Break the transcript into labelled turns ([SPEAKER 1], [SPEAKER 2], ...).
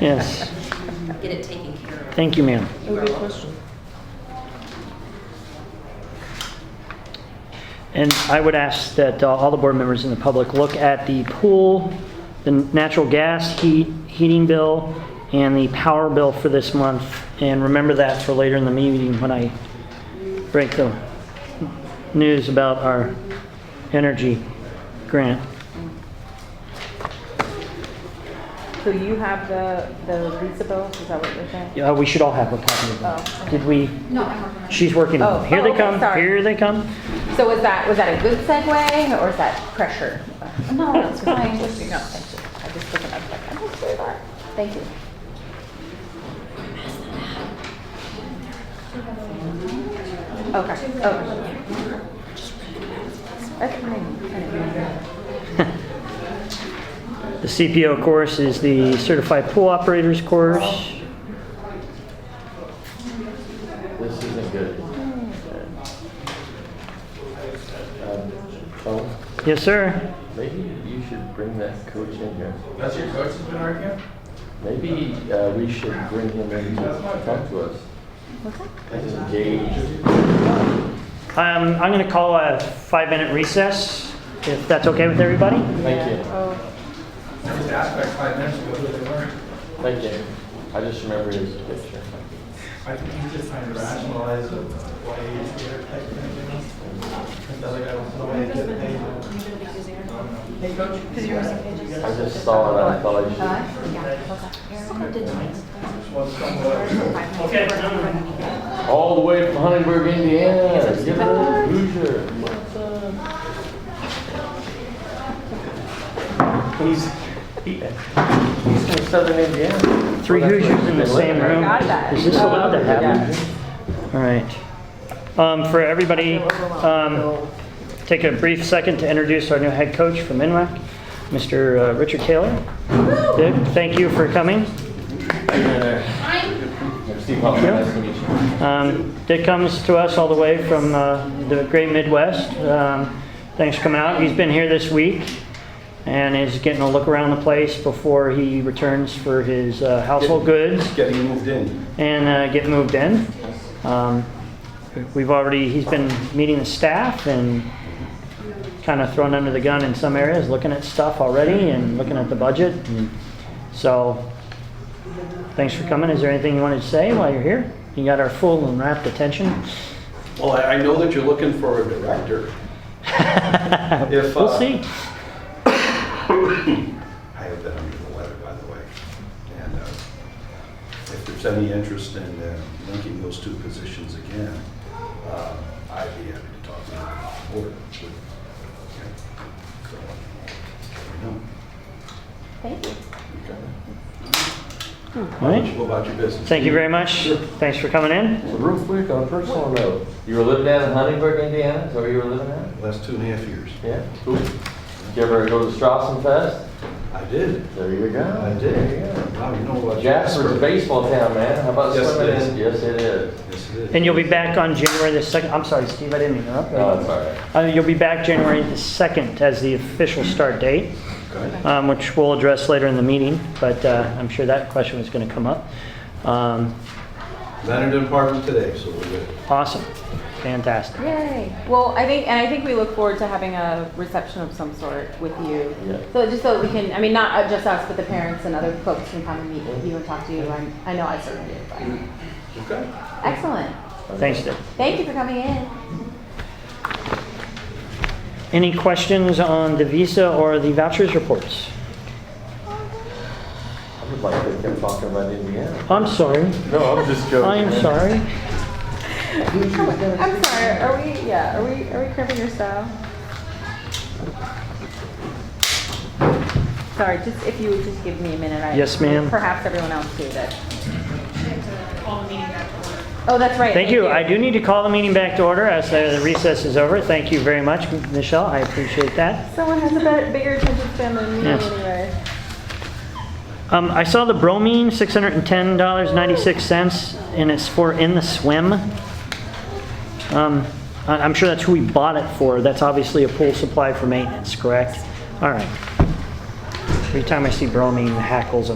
[SPEAKER 1] Yes.
[SPEAKER 2] Get it taken care of.
[SPEAKER 1] Thank you, ma'am.
[SPEAKER 3] Other question?
[SPEAKER 1] And I would ask that uh, all the board members and the public look at the pool, the natural gas heat, heating bill, and the power bill for this month, and remember that for later in the meeting when I break the news about our energy grant.
[SPEAKER 3] So you have the, the Lisa bill, is that what you're saying?
[SPEAKER 1] Yeah, we should all have a copy of
[SPEAKER 3] Oh,
[SPEAKER 1] that.
[SPEAKER 3] okay.
[SPEAKER 1] Did we,
[SPEAKER 4] No, I'm working on it.
[SPEAKER 1] she's working on
[SPEAKER 3] Oh,
[SPEAKER 1] it. Here
[SPEAKER 3] oh,
[SPEAKER 1] they
[SPEAKER 3] okay,
[SPEAKER 1] come,
[SPEAKER 3] sorry.
[SPEAKER 1] here they come.
[SPEAKER 3] So was that, was that a good segue or is that pressure?
[SPEAKER 4] No, that's fine.
[SPEAKER 3] No, thank you. I just wasn't, I was like, I'm not sure about it. Thank you. Okay, oh. That's fine. I didn't know.
[SPEAKER 1] The CPO course is the Certified Pool Operators course.
[SPEAKER 5] This isn't good. Um, Tom,
[SPEAKER 1] Yes, sir.
[SPEAKER 5] maybe you should bring that coach in here.
[SPEAKER 6] That's your coach's been arguing?
[SPEAKER 5] Maybe uh, we should bring him in to talk to us. He's engaged.
[SPEAKER 1] Um, I'm going to call a five-minute recess, if that's okay with everybody.
[SPEAKER 5] Thank you,
[SPEAKER 3] Oh,
[SPEAKER 6] I just asked like five minutes ago who they were.
[SPEAKER 5] thank you. I just remember his picture.
[SPEAKER 6] I think he's just trying to rationalize it, why he's here type of thing. you know? 'Cause the other guy wants to wait to get paid. Hey, coach.
[SPEAKER 5] I just saw it, I thought I should.
[SPEAKER 1] Okay.
[SPEAKER 5] All the way from Huntingburg, Indiana, give her a Hoosier. He's, he- he's from southern Indiana.
[SPEAKER 1] Three Hoosiers in the same room.
[SPEAKER 3] Got that.
[SPEAKER 1] Is this allowed to happen? All right. Um, For everybody, um, take a brief second to introduce our new head coach from NWAC, Mr. uh, Richard Taylor. Dick, thank you for coming.
[SPEAKER 5] I'm Steve Hoffman,
[SPEAKER 1] Yeah.
[SPEAKER 5] nice to meet you.
[SPEAKER 1] Um, Dick comes to us all the way from uh, the great Midwest. Um, Thanks for coming out. He's been here this week and is getting a look around the place before he returns for his uh, household goods
[SPEAKER 7] Getting moved in.
[SPEAKER 1] and uh, get moved in. Um, We've already, he's been meeting the staff and kind of thrown under the gun in some areas, looking at stuff already and looking at the budget. And So, thanks for coming. Is there anything you wanted to say while you're here? You got our full and rapt attention.
[SPEAKER 7] Well, I I know that you're looking for a director. If,
[SPEAKER 1] We'll
[SPEAKER 7] uh,
[SPEAKER 1] see.
[SPEAKER 7] I have been under the weather, by the way. And uh, if there's any interest in uh, linking those two positions again, uh, I'd be happy to talk to the board. Okay. So, I don't know.
[SPEAKER 3] Thank you.
[SPEAKER 7] Okay.
[SPEAKER 1] All
[SPEAKER 7] Why don't
[SPEAKER 1] right.
[SPEAKER 7] you go about your business?
[SPEAKER 1] Thank you very much.
[SPEAKER 7] Sure.
[SPEAKER 1] Thanks for coming in.
[SPEAKER 5] Real quick, on a personal note, you were living down in Huntingburg, Indiana, is that where you were living at?
[SPEAKER 7] Last two and a half years.
[SPEAKER 5] Yeah, cool. Did you ever go to Strassen Fest?
[SPEAKER 7] I did.
[SPEAKER 5] There you go.
[SPEAKER 7] I
[SPEAKER 5] There
[SPEAKER 7] did.
[SPEAKER 5] you go.
[SPEAKER 7] Wow, you know what?
[SPEAKER 5] Jasper's a baseball town, man, how about
[SPEAKER 7] Yes, it
[SPEAKER 5] swimming
[SPEAKER 7] is.
[SPEAKER 5] in? Yes, it is.
[SPEAKER 7] Yes, it is.
[SPEAKER 1] And you'll be back on January the 2nd. I'm sorry, Steve, I didn't interrupt.
[SPEAKER 5] No, it's all
[SPEAKER 1] Uh,
[SPEAKER 5] right.
[SPEAKER 1] You'll be back January the 2nd as the official start date.
[SPEAKER 7] Okay.
[SPEAKER 1] um, which we'll address later in the meeting, but uh, I'm sure that question was going to come up. Um,
[SPEAKER 7] Leonard and Parkman today, so we're good.
[SPEAKER 1] Awesome, fantastic.
[SPEAKER 3] Yay. Well, I think, and I think we look forward to having a reception of some sort with you.
[SPEAKER 5] Yeah.
[SPEAKER 3] So just so we can, I mean, not uh, just us, but the parents and other folks can come and meet with you and talk to you. I'm, I know I certainly did. but-
[SPEAKER 7] Okay.
[SPEAKER 3] Excellent.
[SPEAKER 1] Thanks, Dick.
[SPEAKER 3] Thank you for coming in.
[SPEAKER 1] Any questions on the Visa or the vouchers reports?
[SPEAKER 5] I would like to keep talking about Indiana.
[SPEAKER 1] I'm sorry,
[SPEAKER 5] No, I'm just joking.
[SPEAKER 1] I am
[SPEAKER 5] man.
[SPEAKER 1] sorry.
[SPEAKER 3] I'm sorry. Are we? Yeah. Are we? Are we cribbing your style? Sorry. Just if you would just give me a minute. I,
[SPEAKER 1] Yes, ma'am.
[SPEAKER 3] Perhaps everyone else too. That.
[SPEAKER 4] All the meeting back to order.
[SPEAKER 3] Oh, that's right.
[SPEAKER 1] Thank you, I do need to call the meeting back to order as uh, the recess is over. Thank you very much, Michelle, I appreciate that.
[SPEAKER 3] Someone has a bet- bigger attention span than me
[SPEAKER 1] Yes.
[SPEAKER 3] anyway.
[SPEAKER 1] Um, I saw the bromine, $610.96, and it's for in the swim. Um, I- I'm sure that's who we bought it for. That's obviously a pool supply for maintenance, correct? All right. Every time I see bromine, the hackles